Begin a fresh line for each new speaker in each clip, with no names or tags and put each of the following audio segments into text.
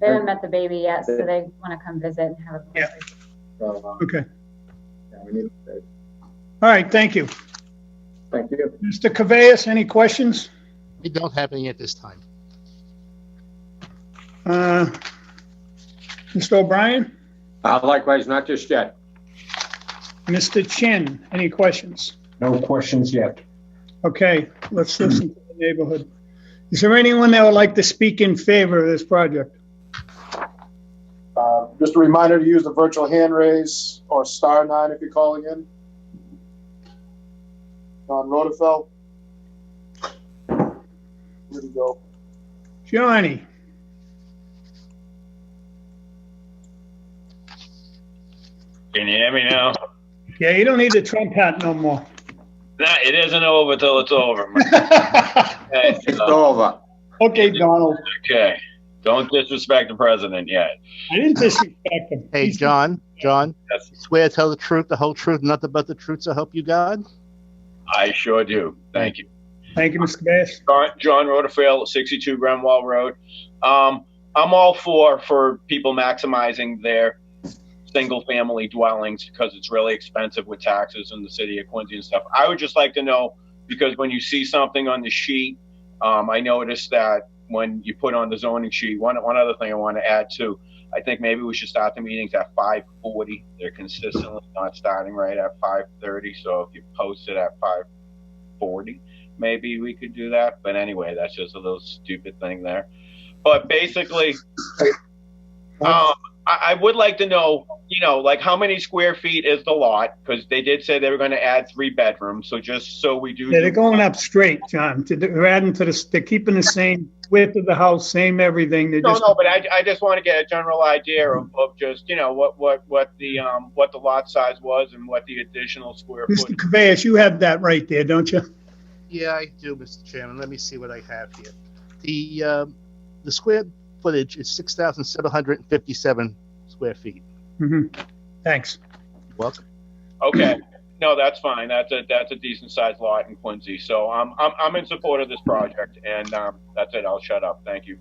They haven't met the baby yet, so they want to come visit and have a
Yeah.
conversation.
So, um,
Okay.
yeah, we need, uh,
All right, thank you.
thank you.
Mr. Cabeas, any questions?
We don't have any at this time.
Uh, Mr. O'Brien?
Uh, Likewise, not just yet.
Mr. Chin, any questions?
No questions yet.
Okay, let's listen to the neighborhood. Is there anyone that would like to speak in favor of this project?
Uh, Just a reminder to use the virtual hand raise or star nine if you're calling in. Don Rotafel. Here we go.
Johnny?
Can you hear me now?
Yeah, you don't need the Trump hat no more.
Nah, it isn't over till it's over. my guy.
It's over.
Okay, Donald,
okay. Don't disrespect the president yet.
I didn't disrespect him.
Hey, John, John,
Yes,
swear to tell the truth, the whole truth, nothing but the truth, so help you God.
I sure do. Thank you.
Thank you, Mr. Cabeas.
John, John Rotafail, 62 Grenwall Road. Um, I'm all for for people maximizing their single family dwellings because it's really expensive with taxes in the city of Quincy and stuff. I would just like to know because when you see something on the sheet, um, I noticed that when you put on the zoning sheet, one one other thing I want to add too. I think maybe we should start the meetings at 5:40. They're consistently not starting right at 5:30. So if you post it at 5:40, maybe we could do that. But anyway, that's just a little stupid thing there. But basically, um, I, I would like to know, you know, like how many square feet is the lot? Because they did say they were going to add three bedrooms. So just so we do.
Yeah, they're going up straight, John. To- They're adding to the, s- they're keeping the same width of the house, same everything. They're
No,
just,
no, but I, I just want to get a general idea of, of just, you know, what, what, what the, um, what the lot size was and what the additional square
Mr.
foot.
Cabeas, you have that right there, don't you?
Yeah, I do, Mr. Chairman. Let me see what I have here. The, um, the square footage is 6,757 square feet.
Mhm. Thanks.
Welcome.
Okay. No, that's fine. That's a, that's a decent sized lot in Quincy. So I'm, I'm, I'm in support of this project and, um, that's it. I'll shut up. Thank you.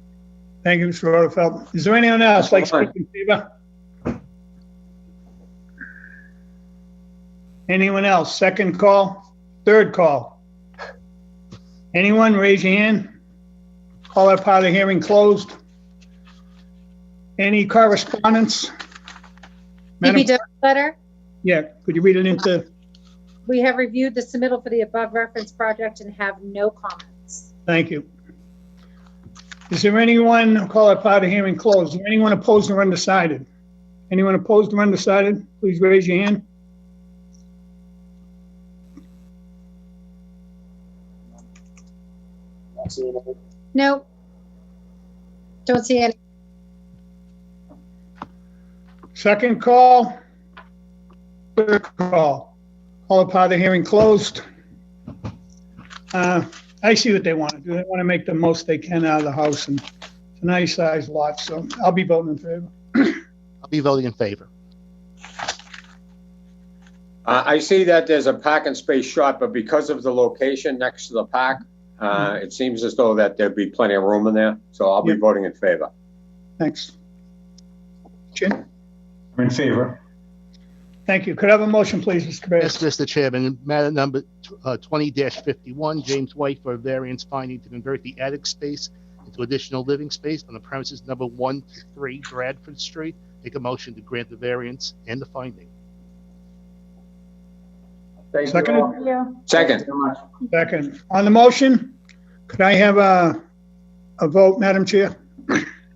Thank you, Mr. Rutherford. Is there anyone else like to speak in favor? Anyone else? Second call? Third call? Anyone? Raise your hand. Call that part of the hearing closed. Any correspondence? Madam-
DPW letter,
Yeah, could you read it into,
we have reviewed the submittal for the above referenced project and have no comments.
thank you. Is there anyone, call it part of hearing closed, Is there anyone opposed or undecided? Anyone opposed or undecided, please raise your hand.
Not seeing anything.
No. Don't see any.
Second call. Third call. Call it part of hearing closed. Uh, I see what they want to do, they want to make the most they can out of the house, and it's a nice sized lot, so I'll be voting in favor.
I'll be voting in favor.
Uh, I see that there's a parking space short, but because of the location next to the park, uh, it seems as though that there'd be plenty of room in there, so I'll be
Yeah.
voting in favor.
Thanks. Jim?
I'm in favor.
Thank you. Could I have a motion, please, Mr.
Yes,
Cabeas?
Mr. Chairman, matter number uh, 20-51, James White for a variance finding to convert the attic space into additional living space on the premises number 1 to 3 Bradford Street. Make a motion to grant the variance and the finding.
Thank you
Seconded.
all.
Thank you.
Thank
Second,
you very much.
Second. On the motion, could I have a, a vote, Madam Chair?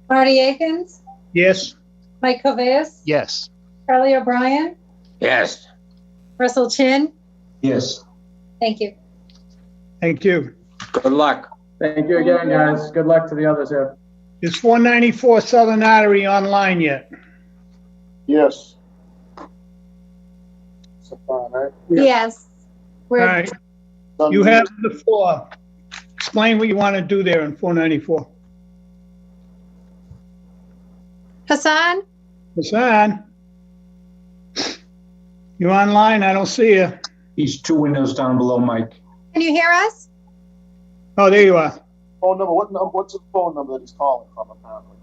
Marty Akins,
Yes?
Mike Cavais,
Yes,
Charlie O'Brien,
yes.
Russell Chin.
Yes.
Thank you.
Thank you.
Good luck.
Thank you again, guys. Good luck to the others here.
Is 494 Southern Artery online yet?
Yes. So fine, right?
Yes.
All
We're
right, you have the floor. Explain what you want to do there in 494.
Hassan,
Hassan? You online? I don't see you.
He's two windows down below Mike.
can you hear us?
Oh, there you are.
Phone number, what, num- what's the phone number that he's calling from apparently?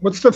What's the